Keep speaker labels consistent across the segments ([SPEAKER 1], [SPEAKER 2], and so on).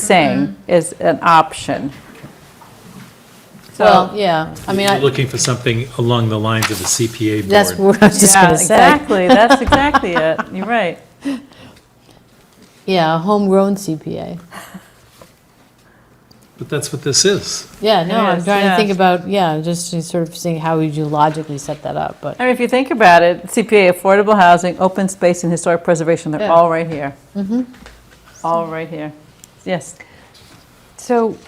[SPEAKER 1] saying
[SPEAKER 2] Mm-hmm.
[SPEAKER 1] is an option.
[SPEAKER 2] Well,
[SPEAKER 1] So,
[SPEAKER 2] yeah, I mean,
[SPEAKER 3] You're
[SPEAKER 2] I-
[SPEAKER 3] looking for something along the lines of the CPA board.
[SPEAKER 2] that's what I was just
[SPEAKER 1] yeah,
[SPEAKER 2] going to say.
[SPEAKER 1] exactly, that's exactly it, you're right.
[SPEAKER 2] Yeah, a homegrown CPA.
[SPEAKER 3] But that's what this is.
[SPEAKER 2] Yeah, no,
[SPEAKER 1] It
[SPEAKER 2] I'm
[SPEAKER 1] is,
[SPEAKER 2] trying to
[SPEAKER 1] yeah.
[SPEAKER 2] think about, yeah, just to sort of seeing how would you logically set that up, but,
[SPEAKER 1] I mean, if you think about it, CPA, affordable housing, open space and historic preservation, they're
[SPEAKER 2] Yeah. Mm-hmm.
[SPEAKER 1] all right here. All right here, yes.
[SPEAKER 4] So,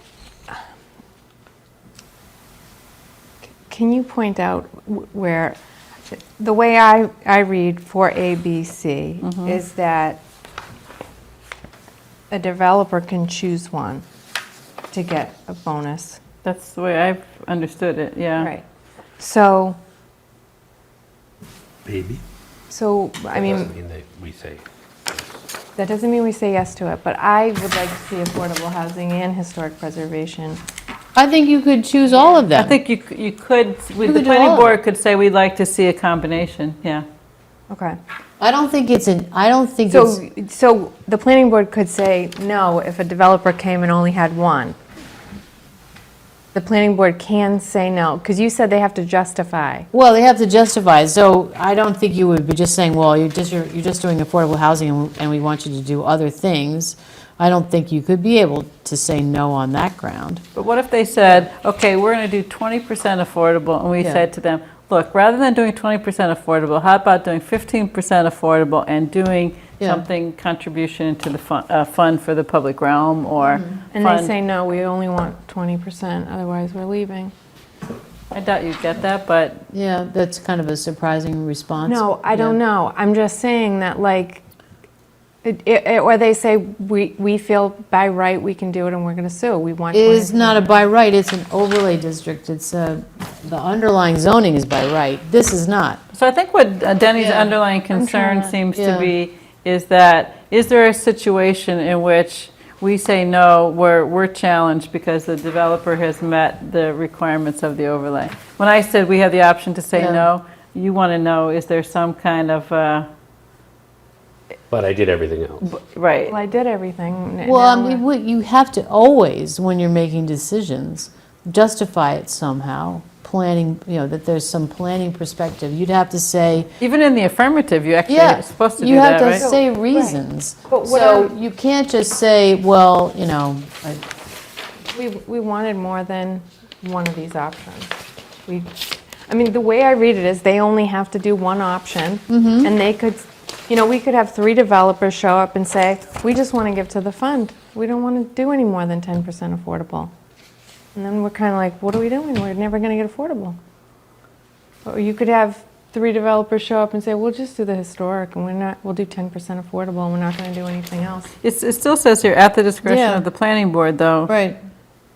[SPEAKER 4] c- can you point out wh- where, the way I, I read for A, B, C is that a developer can choose one to get a bonus.
[SPEAKER 1] That's the way I've understood it, yeah.
[SPEAKER 4] Right. So,
[SPEAKER 5] Maybe.
[SPEAKER 4] so, I mean,
[SPEAKER 5] Doesn't mean that we say.
[SPEAKER 4] that doesn't mean we say yes to it, but I would like to see affordable housing and historic preservation.
[SPEAKER 2] I think you could choose all of
[SPEAKER 1] I
[SPEAKER 2] them.
[SPEAKER 1] think you, c- you could, we-
[SPEAKER 2] could
[SPEAKER 1] the
[SPEAKER 2] do
[SPEAKER 1] planning
[SPEAKER 2] all of it.
[SPEAKER 1] board could say, we'd like to see a combination, yeah.
[SPEAKER 4] Okay.
[SPEAKER 2] I don't think it's an, I don't think it's,
[SPEAKER 4] So, so the planning board could say no if a developer came and only had one. The planning board can say no, because you said they have to justify.
[SPEAKER 2] well, they have to justify, so I don't think you would be just saying, well, you're just, you're you're just doing affordable housing and- and we want you to do other things. I don't think you could be able to say no on that ground.
[SPEAKER 1] But what if they said, okay, we're going to do 20% affordable, and we
[SPEAKER 2] Yeah.
[SPEAKER 1] said to them, look, rather than doing 20% affordable, how about doing 15% affordable and doing
[SPEAKER 2] Yeah.
[SPEAKER 1] something contribution to the fun- uh, fund for the public realm, or
[SPEAKER 4] Mm-hmm. And they
[SPEAKER 1] fund,
[SPEAKER 4] say, no, we only want 20%, otherwise we're leaving.
[SPEAKER 1] I doubt you'd get that, but
[SPEAKER 2] Yeah, that's kind of a surprising response.
[SPEAKER 4] No, I
[SPEAKER 2] Yeah.
[SPEAKER 4] don't know. I'm just saying that like, it- it- or they say, we, we feel by right we can do it and we're going to sue. We want.
[SPEAKER 2] is
[SPEAKER 4] 20%."
[SPEAKER 2] not a by right, it's an overlay district, it's a, the underlying zoning is by right, this is not.
[SPEAKER 1] So I think what uh, Denny's
[SPEAKER 2] Yeah.
[SPEAKER 1] underlying concern
[SPEAKER 4] to-
[SPEAKER 1] seems to
[SPEAKER 2] yeah.
[SPEAKER 1] be is that, is there a situation in which we say no, we're, we're challenged because the developer has met the requirements of the overlay? When I said we have the option to say
[SPEAKER 2] Yeah.
[SPEAKER 1] no, you want to know, is there some kind of, uh,
[SPEAKER 5] But I did everything else.
[SPEAKER 4] Well,
[SPEAKER 1] right?
[SPEAKER 4] I did everything. n-
[SPEAKER 2] Well, I
[SPEAKER 4] now
[SPEAKER 2] mean,
[SPEAKER 4] we're-
[SPEAKER 2] what- you have to always, when you're making decisions, justify it somehow, planning, you know, that there's some planning perspective, you'd have to say,
[SPEAKER 1] Even in the affirmative, you actually
[SPEAKER 2] yeah,
[SPEAKER 1] are supposed to do
[SPEAKER 2] you
[SPEAKER 1] that,
[SPEAKER 2] have to
[SPEAKER 1] right?
[SPEAKER 2] say reasons.
[SPEAKER 4] But what
[SPEAKER 2] So
[SPEAKER 4] I'm-
[SPEAKER 2] you can't just say, well, you know, I-
[SPEAKER 4] We, we wanted more than one of these options. We, I mean, the way I read it is they only have to do one option, and they could, you know, we could have three developers show up and say, we just want to give to the fund. We don't want to do any more than 10% affordable. And then we're kind of like, what are we doing? We're never going to get affordable. Or you could have three developers show up and say, we'll just do the historic, and we're not, we'll do 10% affordable, and we're not going to do anything else.
[SPEAKER 1] It's- It still says here, at the discretion
[SPEAKER 2] Yeah.
[SPEAKER 1] of the planning board, though.
[SPEAKER 2] right,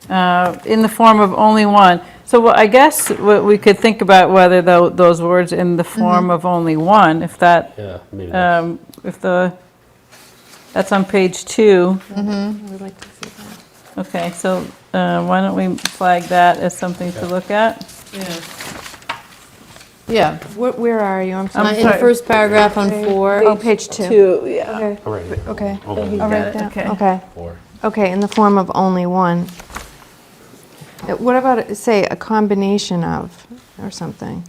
[SPEAKER 1] uh, in the form of only one. So what- I guess what we could think about whether tho- those words in the
[SPEAKER 4] Mm-hmm.
[SPEAKER 1] form of only one, if that,
[SPEAKER 5] Yeah,
[SPEAKER 4] uh,
[SPEAKER 5] maybe that's.
[SPEAKER 1] um, if the, that's on page two.
[SPEAKER 4] We'd like to see that.
[SPEAKER 1] Okay, so uh, why don't we flag that as something to look at?
[SPEAKER 2] yeah.
[SPEAKER 4] Where, where are you? I'm
[SPEAKER 2] Uh,
[SPEAKER 4] sorry.
[SPEAKER 2] In the
[SPEAKER 1] sorry.
[SPEAKER 2] first paragraph on four.
[SPEAKER 4] Oh, page two.
[SPEAKER 1] Two, yeah.
[SPEAKER 4] Okay,
[SPEAKER 5] All right.
[SPEAKER 4] okay.
[SPEAKER 5] I'll go
[SPEAKER 4] All
[SPEAKER 1] got
[SPEAKER 4] right,
[SPEAKER 1] it,
[SPEAKER 4] down-
[SPEAKER 1] okay.
[SPEAKER 4] okay,
[SPEAKER 5] for-
[SPEAKER 4] okay, in the form of only one. Uh, What about, say, a combination of, or something?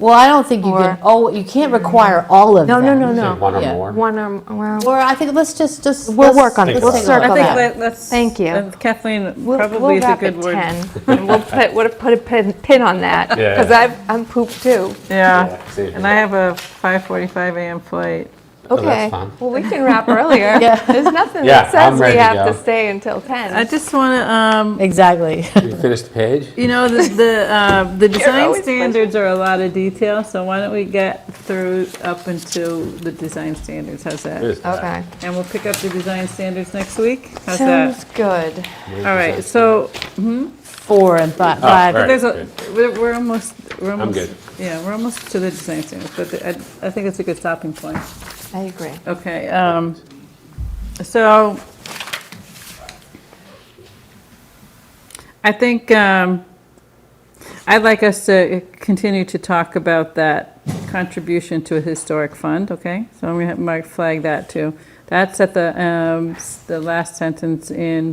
[SPEAKER 2] Well, I don't think you
[SPEAKER 4] Or-
[SPEAKER 2] can, oh, you can't require all of
[SPEAKER 4] No,
[SPEAKER 2] them.
[SPEAKER 4] no, no,
[SPEAKER 5] Say
[SPEAKER 4] no.
[SPEAKER 5] One
[SPEAKER 2] Yeah.
[SPEAKER 5] or more.
[SPEAKER 4] One, um, well,
[SPEAKER 2] Or I think, let's just, just.
[SPEAKER 4] We'll
[SPEAKER 2] let's-
[SPEAKER 4] work on it.
[SPEAKER 2] let's
[SPEAKER 5] We'll
[SPEAKER 2] take a
[SPEAKER 4] circle
[SPEAKER 2] look.
[SPEAKER 1] I
[SPEAKER 4] Circle
[SPEAKER 1] think
[SPEAKER 4] that.
[SPEAKER 1] let- let's.
[SPEAKER 4] Thank you.
[SPEAKER 1] and Kathleen
[SPEAKER 4] we'll,
[SPEAKER 1] probably
[SPEAKER 4] we'll
[SPEAKER 1] is a
[SPEAKER 4] wrap
[SPEAKER 1] good
[SPEAKER 4] at
[SPEAKER 1] word.
[SPEAKER 4] 10. and We'll put, we'll put a pin, pin on that,
[SPEAKER 5] Yeah.
[SPEAKER 4] because I've, I'm pooped too.
[SPEAKER 1] Yeah,
[SPEAKER 5] Yeah, same
[SPEAKER 1] and I have a 5:45 AM flight.
[SPEAKER 5] Oh, that's
[SPEAKER 4] Okay,
[SPEAKER 5] fine.
[SPEAKER 4] well, we can wrap earlier.
[SPEAKER 2] Yeah.
[SPEAKER 4] There's nothing
[SPEAKER 5] Yeah,
[SPEAKER 4] that says
[SPEAKER 5] I'm ready
[SPEAKER 4] we
[SPEAKER 5] to
[SPEAKER 4] have
[SPEAKER 5] go.
[SPEAKER 4] to stay until 10.
[SPEAKER 1] I just um, want to,
[SPEAKER 2] Exactly.
[SPEAKER 5] Did you finish the page?
[SPEAKER 1] You know, the, the, uh, the design
[SPEAKER 4] always
[SPEAKER 1] standards are a lot of detail, so why don't we get through up until the design standards, how's that?
[SPEAKER 5] There's that.
[SPEAKER 4] Okay.
[SPEAKER 1] And we'll pick up the design standards next week, how's that?
[SPEAKER 4] Sounds good.
[SPEAKER 1] All right, so,
[SPEAKER 2] Four and fi-
[SPEAKER 5] Oh,
[SPEAKER 2] five.
[SPEAKER 5] right.
[SPEAKER 1] there's a, we're, we're almost, we're almost.
[SPEAKER 5] good.
[SPEAKER 1] Yeah, we're almost to the design standards, but the- I, I think it's a good stopping point.
[SPEAKER 4] I agree.
[SPEAKER 1] Okay, um, so I think um, I'd like us to continue to talk about that contribution to a historic fund, okay? So I'm going to mark flag that too. That's at the, um, s- the last sentence in